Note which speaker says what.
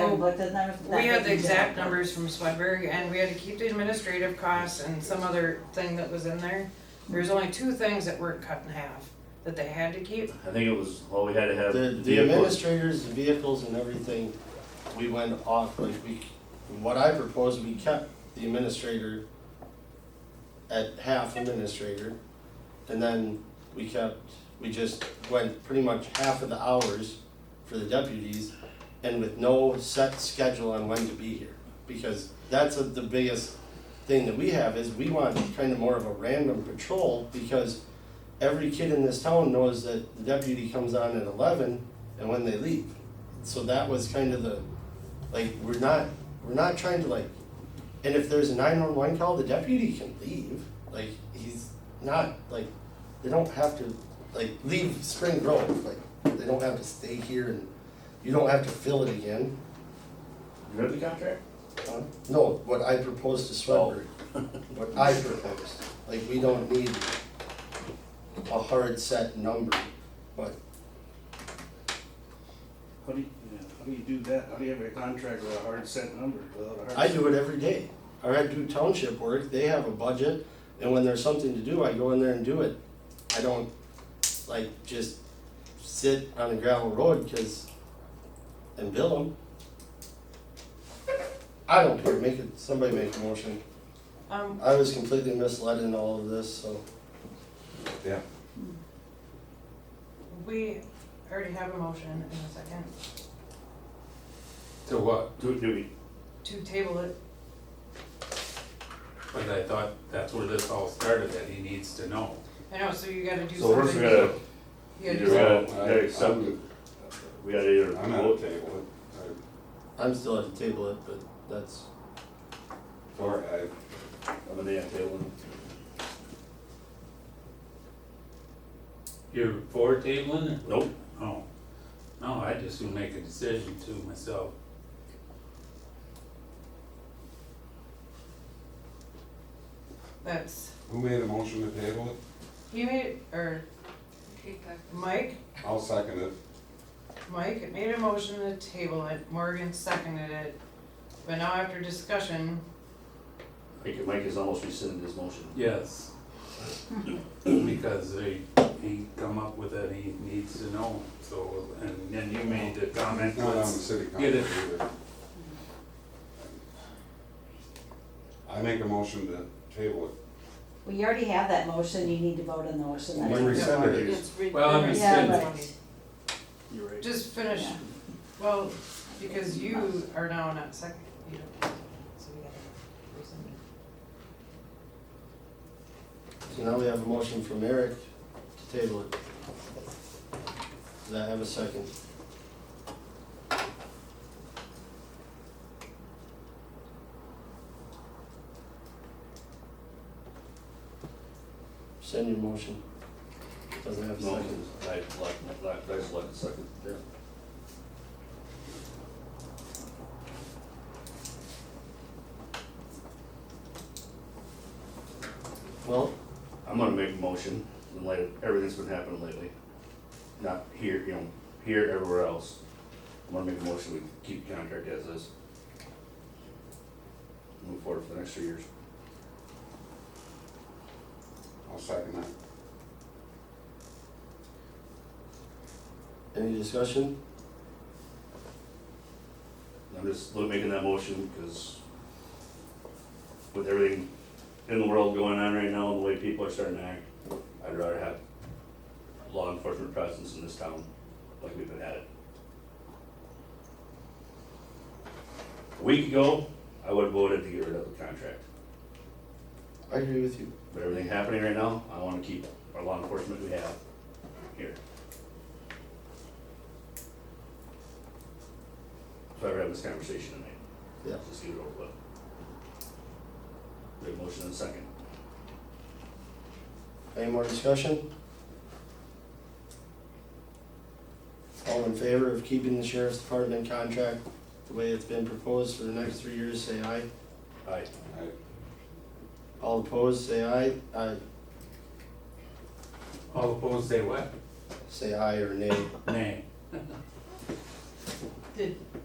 Speaker 1: do, but the numbers. that
Speaker 2: Oh. We had
Speaker 1: they
Speaker 2: the
Speaker 1: do.
Speaker 2: exact numbers from Swedberg and we had to keep the administrative costs and some other thing that was in there. There was only two things that weren't cut in half that they had to keep.
Speaker 3: I think it was, well, we had to have
Speaker 4: The, the
Speaker 3: vehicles.
Speaker 4: administrators, the vehicles and everything, we went off, like, we, what I proposed, we kept the administrator at half administrator, and then we kept, we just went pretty much half of the hours for the deputies, and with no set schedule on when to be here, because that's what the biggest thing that we have, is we want kind of more of a random patrol, because every kid in this town knows that the deputy comes on at eleven and when they leave. So that was kind of the, like, we're not, we're not trying to like, and if there's a nine one one call, the deputy can leave, like, he's not, like, they don't have to, like, leave Spring Grove, like, they don't have to stay here and you don't have to fill it again.
Speaker 3: You read the contract?
Speaker 4: Huh? No, what I proposed to Swedberg, what I proposed, like, we don't need a hard set number, but
Speaker 5: How do you, yeah, how do you do that? How do you have a contract with a hard set number without a hard?
Speaker 4: I
Speaker 5: set-
Speaker 4: do it every day. Or I do township work, they have a budget, and when there's something to do, I go in there and do it. I don't, like, just sit on a gravel road, cause, and bill them. I don't care, make it, somebody make a motion.
Speaker 2: Um,
Speaker 4: I was completely misled in all of this, so.
Speaker 2: we already have a motion in a second
Speaker 6: To what?
Speaker 3: Do, do we,
Speaker 2: to table it.
Speaker 6: But I thought that's where this all started, that he needs to know.
Speaker 2: I know, so you gotta do something.
Speaker 3: so first we gotta,
Speaker 2: You
Speaker 3: either
Speaker 2: gotta
Speaker 3: we
Speaker 2: do something.
Speaker 3: gotta, we gotta accept,
Speaker 6: I'm-
Speaker 3: we gotta either
Speaker 6: I'm at a
Speaker 3: vote,
Speaker 6: table,
Speaker 4: I'm still at the table it, but that's,
Speaker 6: I- or I,
Speaker 3: I'm gonna have table.
Speaker 6: you're for tabling it?
Speaker 3: Nope,
Speaker 6: Oh, no, I just would make a decision to myself.
Speaker 2: That's,
Speaker 7: Who made a motion to table it?
Speaker 2: he made, or Mike,
Speaker 7: I'll second it.
Speaker 2: Mike made a motion to table it, Morgan seconded it. But now after discussion,
Speaker 3: Mike, Mike has almost rescinded his motion.
Speaker 6: Yes. Because he, he come up with it, he needs to know, so, and then you made the comment,
Speaker 7: Not on the
Speaker 6: let's
Speaker 7: city council
Speaker 6: Get it.
Speaker 7: either. I make a motion to table it.
Speaker 1: Well, you already have that motion, you need to vote on the motion. that's-
Speaker 7: We rescinded it.
Speaker 6: Well, I'm
Speaker 1: Yeah,
Speaker 6: rescinding.
Speaker 1: but,
Speaker 5: You're right.
Speaker 2: just finish,
Speaker 1: Yeah.
Speaker 2: well, because you are now not second, you don't, so we gotta rescind it.
Speaker 4: so now we have a motion from Eric to table it. Does I have a second? Send your motion. Doesn't have a
Speaker 3: No,
Speaker 4: second.
Speaker 3: I, like, like, I just like the second.
Speaker 4: Well,
Speaker 3: I'm gonna make a motion in light of everything's been happening lately. Not here, you know, here, everywhere else. I'm gonna make a motion, we keep the contract as is. Move forward for the next three years.
Speaker 7: I'll second that.
Speaker 4: any discussion?
Speaker 3: I'm just look- making that motion because with everything in the world going on right now and the way people are starting to act, I'd rather have law enforcement presence in this town like we've been at it. A week ago, I would have voted to get rid of the contract,
Speaker 4: I agree with you.
Speaker 3: but everything happening right now, I want to keep our law enforcement we have here. So I'd have this conversation tonight.
Speaker 4: Yeah.
Speaker 3: Just get it over with. We have a motion and a second.
Speaker 4: Any more discussion? All in favor of keeping the sheriff's department contract the way it's been proposed for the next three years, say aye.
Speaker 3: Aye.
Speaker 7: I,
Speaker 4: All opposed, say aye. Aye,
Speaker 6: all opposed, say what?
Speaker 4: say aye or nay.
Speaker 6: Nay.
Speaker 2: Did,